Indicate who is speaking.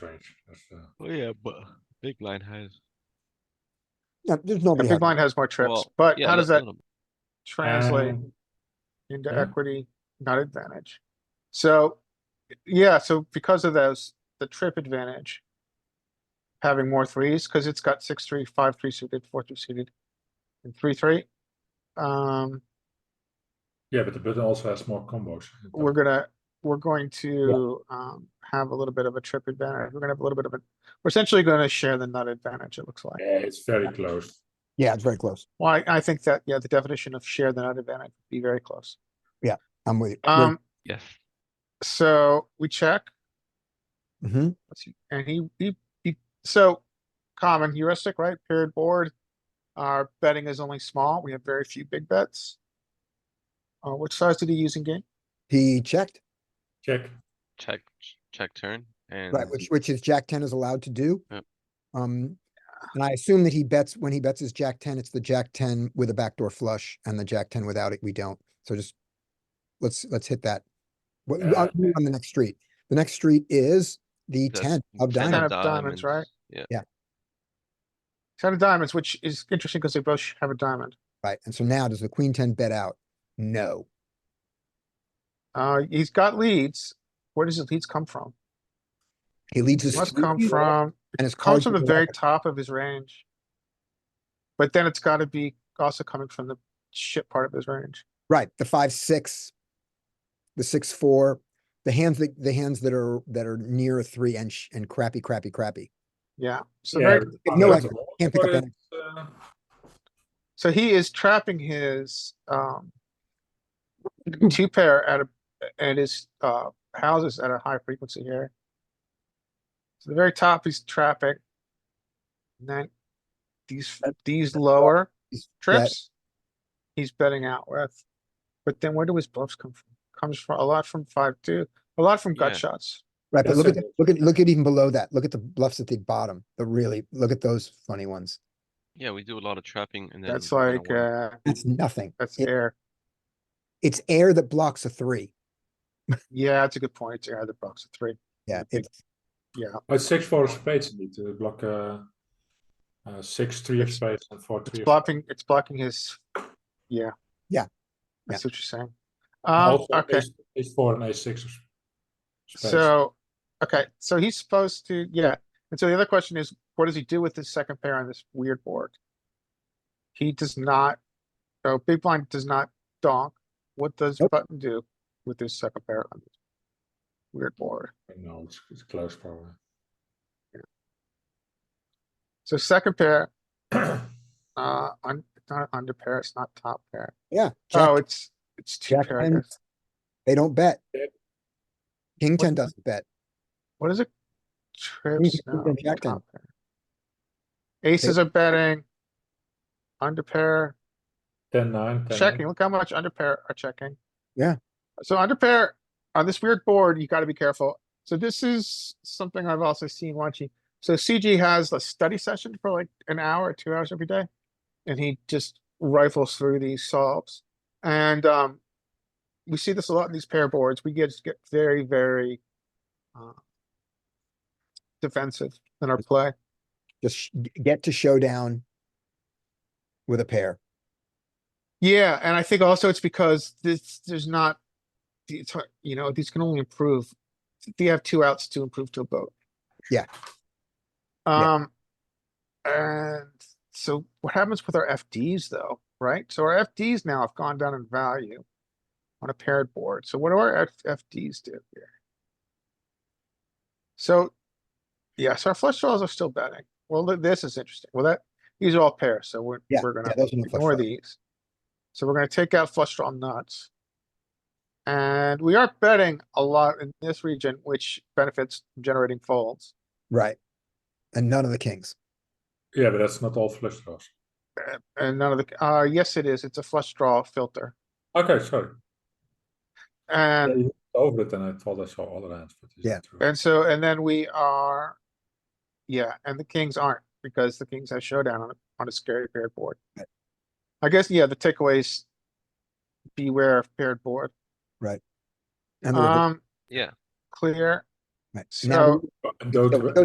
Speaker 1: range. That's, uh,
Speaker 2: Oh yeah, but big blind has.
Speaker 3: No, there's
Speaker 4: The
Speaker 3: nobody.
Speaker 4: big
Speaker 3: out
Speaker 4: blind has more trips,
Speaker 2: Well,
Speaker 4: but
Speaker 2: yeah,
Speaker 4: how does
Speaker 2: no-
Speaker 4: that
Speaker 2: no, no.
Speaker 4: translate
Speaker 1: Um,
Speaker 4: into
Speaker 1: yeah.
Speaker 4: equity, not advantage? So, yeah, so because of those, the trip advantage. Having more threes, cause it's got six, three, five, three suited, four, two suited, and three, three. Um,
Speaker 1: yeah, but the button also has more combos.
Speaker 4: we're gonna, we're going to, um, have a little bit of a trip advantage. We're gonna have a little bit of a, we're essentially gonna share the nut advantage, it looks like.
Speaker 1: Yeah, it's very close.
Speaker 3: Yeah, it's very close.
Speaker 4: Well, I, I think that, yeah, the definition of share the nut advantage would be very close.
Speaker 3: I'm with you.
Speaker 4: Um,
Speaker 2: Yes.
Speaker 4: so we check.
Speaker 3: hmm
Speaker 4: Let's see, and he, he, he, so common heuristic, right? Paired board. Our betting is only small. We have very few big bets. Uh, which size did he use in game?
Speaker 3: He checked,
Speaker 1: Check.
Speaker 2: Check, check turn and.
Speaker 3: right, which, which is Jack ten is allowed to do.
Speaker 2: Yep.
Speaker 3: Um, and I assume that he bets, when he bets his Jack ten, it's the Jack ten with a backdoor flush and the Jack ten without it, we don't. So just, let's, let's hit that. What,
Speaker 1: Uh,
Speaker 3: I'll do on the next street. The next street is the
Speaker 2: that's
Speaker 3: E ten of
Speaker 2: 10
Speaker 3: diamonds.
Speaker 4: Kind of diamonds, right?
Speaker 2: Yeah,
Speaker 4: Ten of diamonds, which is interesting because they both sh- have a diamond.
Speaker 3: Right, and so now does the queen ten bet out? No.
Speaker 4: Uh, he's got leads. Where does his leads come from?
Speaker 3: He leads his.
Speaker 4: Must
Speaker 3: three
Speaker 4: come
Speaker 3: people
Speaker 4: from,
Speaker 3: And his cards.
Speaker 4: comes from the
Speaker 3: are
Speaker 4: very
Speaker 3: wrapped.
Speaker 4: top of his range. But then it's gotta be also coming from the shit part of his range.
Speaker 3: Right, the five, six. The six, four, the hands that, the hands that are, that are near a three and, sh- and crappy, crappy, crappy.
Speaker 4: Yeah, so
Speaker 1: Yeah,
Speaker 4: very,
Speaker 1: but-
Speaker 3: no, I
Speaker 1: but-
Speaker 3: can't pick up
Speaker 1: but
Speaker 3: any.
Speaker 1: it's, uh,
Speaker 4: So he is trapping his um two pair at a at his uh houses at a high frequency here. So the very top he's trapping. And then these these lower
Speaker 3: He's bet-
Speaker 4: trips he's betting out with. But then where do his bluffs come from? Comes from a lot from five two, a lot from gut
Speaker 2: Yeah.
Speaker 4: shots.
Speaker 3: Right, but
Speaker 1: That's
Speaker 3: look at,
Speaker 1: it.
Speaker 3: the- look at, look at even below that, look at the bluffs at the bottom, the really, look at those funny ones.
Speaker 2: yeah, we do a lot of trapping and then.
Speaker 4: That's
Speaker 2: we kinda
Speaker 4: like
Speaker 2: win.
Speaker 4: uh
Speaker 3: That's nothing.
Speaker 4: that's
Speaker 3: Yeah.
Speaker 4: air.
Speaker 3: It's air that blocks a three.
Speaker 4: Yeah, that's a good point. It's air the box of three.
Speaker 3: Yeah,
Speaker 4: Big-
Speaker 3: it's,
Speaker 4: Yeah.
Speaker 1: But oh, six four of spades need to block uh, uh, six three of spades and four
Speaker 4: It's
Speaker 1: three. of-
Speaker 4: blocking, it's blocking his, yeah.
Speaker 3: Yeah.
Speaker 4: I see what you're saying.
Speaker 1: and
Speaker 4: Um,
Speaker 1: also
Speaker 4: okay,
Speaker 1: ace- Ace four and ace six. Of s- spades.
Speaker 4: so, okay, so he's supposed to, yeah, and so the other question is, what does he do with his second pair on this weird board? He does not, oh, big blind does not donk. What does
Speaker 3: Nope.
Speaker 4: button do with his second pair on this weird board?
Speaker 1: no, it's, it's close probably.
Speaker 4: So second pair, uh, on, it's not under pair, it's not top pair.
Speaker 3: yeah.
Speaker 4: Oh,
Speaker 3: Jack-
Speaker 4: it's, it's two
Speaker 3: Jack
Speaker 4: pair, I
Speaker 3: ten.
Speaker 4: guess.
Speaker 3: They don't bet.
Speaker 1: Yep.
Speaker 3: King
Speaker 4: What-
Speaker 3: ten doesn't bet.
Speaker 4: What is it? Trips
Speaker 3: think
Speaker 4: now.
Speaker 3: they're jacked in.
Speaker 4: top pair. Aces are betting. Under pair,
Speaker 1: Ten nine. 10,
Speaker 4: checking. Look how much under pair are checking.
Speaker 3: Yeah.
Speaker 4: So under pair, on this weird board, you gotta be careful. So this is something I've also seen watching. So CG has a study session for like an hour, or two hours every day. And he just rifles through these solves. And, um, we see this a lot in these pair boards. We get, get very, very, uh, defensive in our play.
Speaker 3: Just sh- g- get to showdown with a pair.
Speaker 4: Yeah, and I think also it's because this there's not the- it's hard, you know, these can only improve. They have two outs to improve to a boat.
Speaker 3: Yeah. Yeah.
Speaker 4: Um and so what happens with our FDs though, right? So our FDs now have gone down in value on a paired board. So what do our F- FDs do here? So yes, our flush draws are still betting. Well, th- this is interesting. Well, that these are all pairs, so we're
Speaker 3: Yeah,
Speaker 4: we're
Speaker 3: yeah,
Speaker 4: gonna
Speaker 3: those are no flush
Speaker 4: ignore
Speaker 3: draws.
Speaker 4: these. So we're gonna take out flush draw nuts. And we are betting a lot in this region, which benefits generating folds.
Speaker 3: Right. And none of the kings.
Speaker 1: Yeah, but that's not all flush draws.
Speaker 4: Uh, And none of the, uh, yes, it is. It's a flush draw filter.
Speaker 1: Okay, sorry.
Speaker 4: And
Speaker 1: Yeah, you looked over it, and I thought I saw other hands, but it's
Speaker 3: Yeah.
Speaker 1: not true.
Speaker 4: And so, and then we are, yeah, and the kings aren't because the kings have showdown on, a- on a scary paired board.
Speaker 3: Right.
Speaker 4: I guess, yeah, the takeaways, beware of paired board.
Speaker 3: And the reverse.
Speaker 4: Um,
Speaker 2: Yeah,
Speaker 4: clear.
Speaker 3: Right. Now-
Speaker 4: So
Speaker 1: And go
Speaker 3: So
Speaker 1: to,
Speaker 3: go